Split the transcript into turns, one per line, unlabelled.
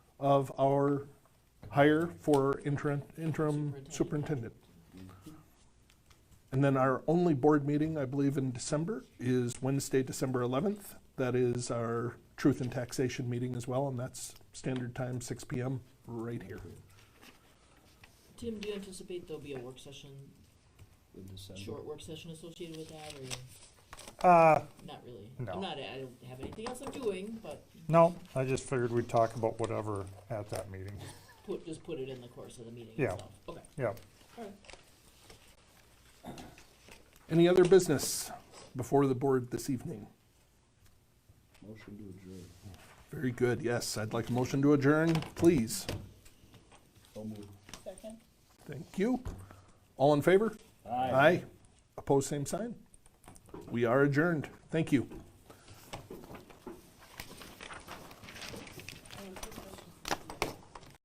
of our hire for interim, interim superintendent. And then our only board meeting, I believe, in December is Wednesday, December 11th. That is our truth and taxation meeting as well, and that's standard time, 6 PM, right here.
Tim, do you anticipate there'll be a work session,
in December.
short work session associated with that, or
Uh,
not really?
No.
I'm not, I don't have anything else I'm doing, but
no, I just figured we'd talk about whatever at that meeting.
put, just put it in the course of the meeting
Yeah.
itself. Okay,
Yeah.
alright.
Any other business before the board this evening?
Motion to adjourn.
Very good, yes. I'd like a motion to adjourn, please.
So moved.
Second?
Thank you. All in favor? Aye. Opposed, same sign? We are adjourned. Thank you.